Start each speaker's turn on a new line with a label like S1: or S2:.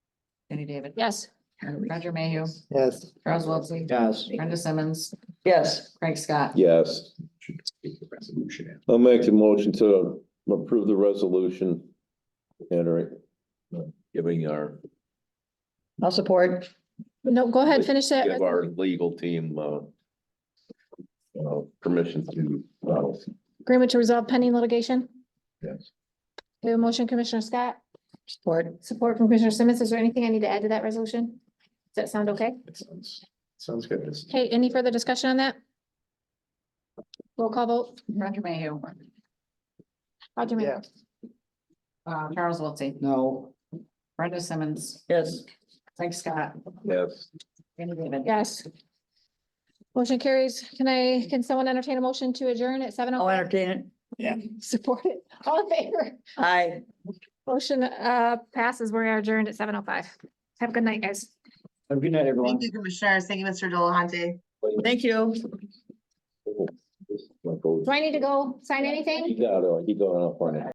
S1: Jenny David.
S2: Yes.
S1: Roger Mayhew,
S3: Yes.
S1: Charles Wiltie,
S3: Yes.
S1: Brenda Simmons,
S3: Yes.
S1: Craig Scott.
S4: Yes,
S3: Resolution.
S4: I'll make the motion to approve the resolution. Entering, giving our,
S3: I'll support.
S2: No, go ahead, finish that.
S4: give our legal team, uh, uh, permission to, uh,
S2: Agreement to resolve pending litigation.
S4: Yes.
S2: We have a motion, Commissioner Scott. Support. Support from Commissioner Simmons. Is there anything I need to add to that resolution? Does that sound okay?
S4: sounds good.
S2: Okay, any further discussion on that? Roll call vote.
S1: Roger Mayhew,
S2: Roger Mayhew.
S3: Yes.
S1: uh, Charles Wiltie,
S3: No.
S1: Brenda Simmons,
S3: Yes.
S1: Craig Scott,
S4: Yes,
S1: Jenny David.
S2: Yes. Motion carries. Can I, can someone entertain a motion to adjourn at seven? oh
S5: I'll entertain it.
S2: Support it. All in favor?
S5: Aye.
S2: Motion uh passes. We are adjourned at seven oh five. Have a good night, guys.
S3: Have a good night, everyone.
S6: Thank you, Commissioners. Thank you, Mr. Delahunty.
S5: Thank you.
S2: Do I need to go sign anything?
S4: he got, it. he got it up on it.